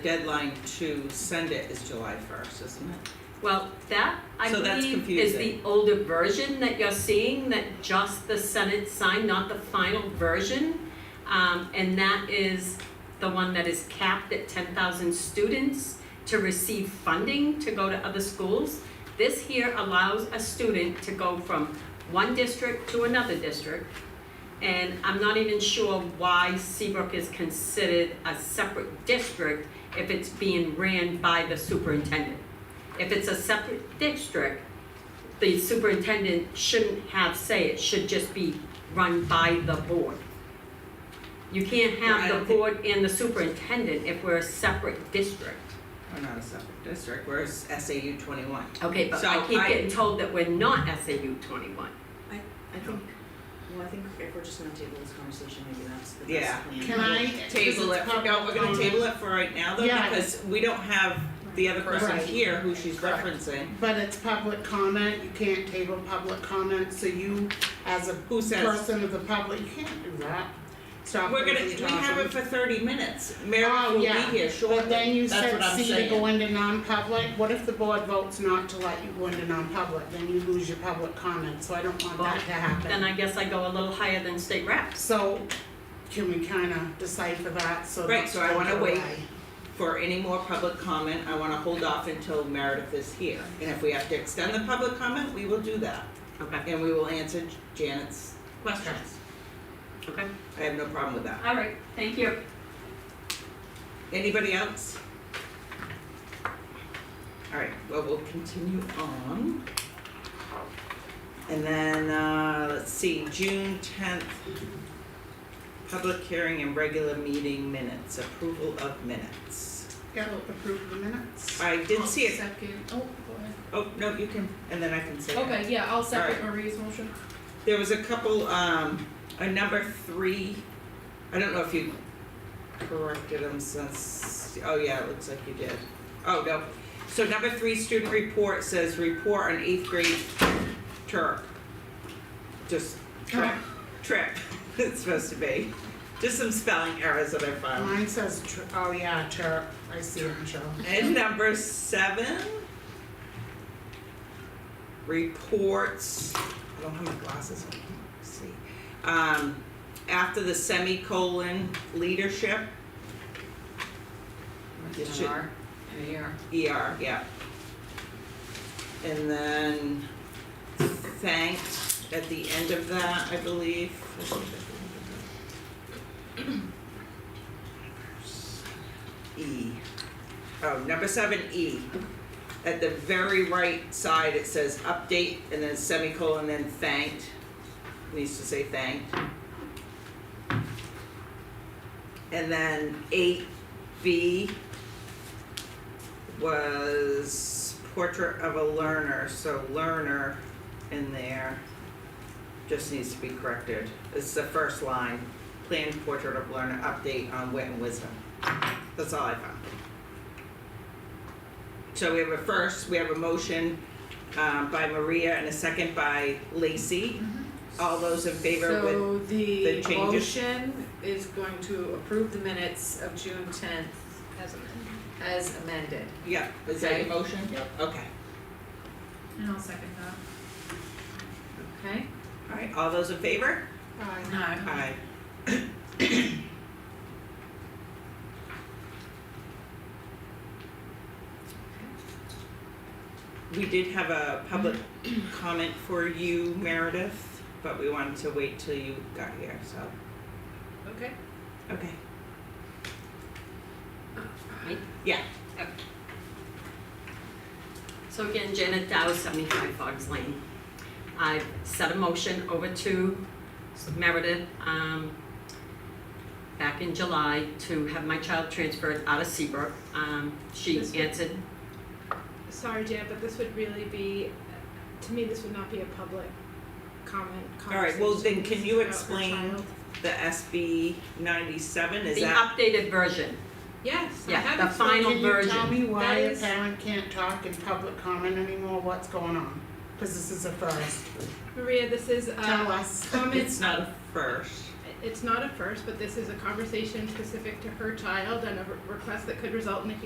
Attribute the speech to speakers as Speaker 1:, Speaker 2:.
Speaker 1: deadline to send it is July first, isn't it?
Speaker 2: Well, that, I
Speaker 1: So that's
Speaker 2: believe, is the
Speaker 1: confusing.
Speaker 2: older version that you're seeing, that just the Senate signed, not the final version. Um, and that is the one that is capped at ten thousand students to receive funding to go to other schools. This here allows a student to go from one district to another district. And I'm not even sure why Seabrook is considered a separate district if it's being ran by the superintendent. If it's a separate district, the superintendent shouldn't have say, it should just be run by the board. You can't
Speaker 1: Yeah, I
Speaker 2: have
Speaker 1: don't
Speaker 2: the
Speaker 1: think-
Speaker 2: board and the superintendent if we're a separate district.
Speaker 1: We're not a separate district, we're S- SAU twenty-one.
Speaker 2: Okay, but I
Speaker 1: So
Speaker 2: keep
Speaker 1: I-
Speaker 2: getting told that we're not SAU twenty-one.
Speaker 3: I think, well, I think if we're just gonna table this conversation, maybe that's the
Speaker 1: Yeah.
Speaker 3: best plan.
Speaker 4: Can I?
Speaker 1: Table it, for- no, we're gonna table it for right now though,
Speaker 4: Yeah.
Speaker 1: because we don't have the other person
Speaker 4: Right.
Speaker 1: here who she's
Speaker 4: Correct.
Speaker 1: referencing.
Speaker 4: But it's public comment, you can't table public comment, so you, as a
Speaker 1: Who says,
Speaker 4: person of the public, you can't do that. Stop
Speaker 1: we're
Speaker 4: them
Speaker 1: gonna,
Speaker 4: from
Speaker 1: we have it
Speaker 4: talking.
Speaker 1: for thirty minutes, Meredith
Speaker 4: Oh,
Speaker 1: will be
Speaker 4: yeah.
Speaker 1: here
Speaker 4: But then
Speaker 1: shortly,
Speaker 4: you
Speaker 1: that's
Speaker 4: said
Speaker 1: what I'm
Speaker 4: C to
Speaker 1: saying.
Speaker 4: go into non-public, what if the board votes not to let you go into non-public, then you lose your public comment, so I don't want that to
Speaker 2: Then
Speaker 4: happen.
Speaker 2: I guess I go a little higher than state reps.
Speaker 4: So, can we kinda decipher that, so
Speaker 1: Right,
Speaker 4: that's
Speaker 1: so I wanna
Speaker 4: going
Speaker 1: wait.
Speaker 4: away?
Speaker 1: For any more public comment, I wanna hold off until Meredith is here, and if we have to extend the public comment, we will do that,
Speaker 2: Okay,
Speaker 1: and we will answer Janet's questions.
Speaker 2: okay.
Speaker 1: I have no problem with that.
Speaker 2: All right, thank you.
Speaker 1: Anybody else? Alright, well, we'll continue on. And then, uh, let's see, June tenth, public hearing and regular meeting minutes, approval of minutes.
Speaker 4: Yeah, approve the minutes.
Speaker 1: I did see it,
Speaker 5: Second, oh, go ahead.
Speaker 1: oh, no, you can, and then I can say it.
Speaker 5: Okay, yeah, I'll second
Speaker 1: Alright.
Speaker 5: Maria's motion.
Speaker 1: There was a couple, um, a number three, I don't know if you corrected them since, oh yeah, it looks like you did. Oh, no, so number three, student report says report on eighth grade Turk. Just trip, trip, it's supposed to be, just some spelling errors that I found.
Speaker 4: Mine says, tr- oh yeah, chirp, I see it, Michelle.
Speaker 1: And number seven. Reports, I don't have my glasses on, let's see. Um, after the semicolon leadership, It should- ER, yeah. And then thanked at the end of that, I believe. I think at the end of that. E. Oh, number seven E. At the very right side, it says update and then semicolon, then thanked. Needs to say thanked. And then eight B was portrait of a learner, so learner in there just needs to be corrected. It's the first line, planned portrait of learner update on wit and wisdom. That's all I found. So we have a first, we have a motion uh, by Maria and a second by Lacey. All those in favor with,
Speaker 5: Mm-hmm. So
Speaker 1: the
Speaker 5: the
Speaker 1: changes?
Speaker 5: motion is going to approve the minutes of June tenth
Speaker 6: As amended.
Speaker 5: as amended.
Speaker 1: yeah, is that your
Speaker 5: Okay.
Speaker 1: motion?
Speaker 6: Yep.
Speaker 1: Okay,
Speaker 6: And I'll second that.
Speaker 5: Okay?
Speaker 1: all right, all those in favor?
Speaker 4: Aye.
Speaker 5: No.
Speaker 1: Aye. We did have a public comment for you, Meredith, but we wanted to wait till you got here, so,
Speaker 5: Okay.
Speaker 1: okay.
Speaker 2: Me?
Speaker 1: Yeah.
Speaker 2: Okay. So again, Janet Dow, seventy-five Fox Lane. I've set a motion over to Meredith, um, back in July to have my child transferred out of Seabrook. Um, she
Speaker 7: This one?
Speaker 2: answered,
Speaker 7: Sorry, Jan, but this would really be, to me, this would not be a public comment,
Speaker 1: All right, well, then
Speaker 7: conversation.
Speaker 1: can
Speaker 7: This
Speaker 1: you
Speaker 7: is about her
Speaker 1: explain-
Speaker 7: child.
Speaker 1: The SB ninety-seven, is
Speaker 2: the
Speaker 1: that,
Speaker 2: updated version,
Speaker 7: Yes, I
Speaker 2: yeah,
Speaker 7: have
Speaker 2: the
Speaker 7: explained.
Speaker 2: final version.
Speaker 4: Can you tell me why
Speaker 7: That
Speaker 4: a
Speaker 7: is-
Speaker 4: parent can't talk in public comment anymore, what's going on? Cause this is a first,
Speaker 7: Maria, this is,
Speaker 4: tell
Speaker 7: uh,
Speaker 4: us.
Speaker 7: comments,
Speaker 1: it's not a first,
Speaker 7: it's not a first, but this is a conversation specific to her child and a re- request that could result in a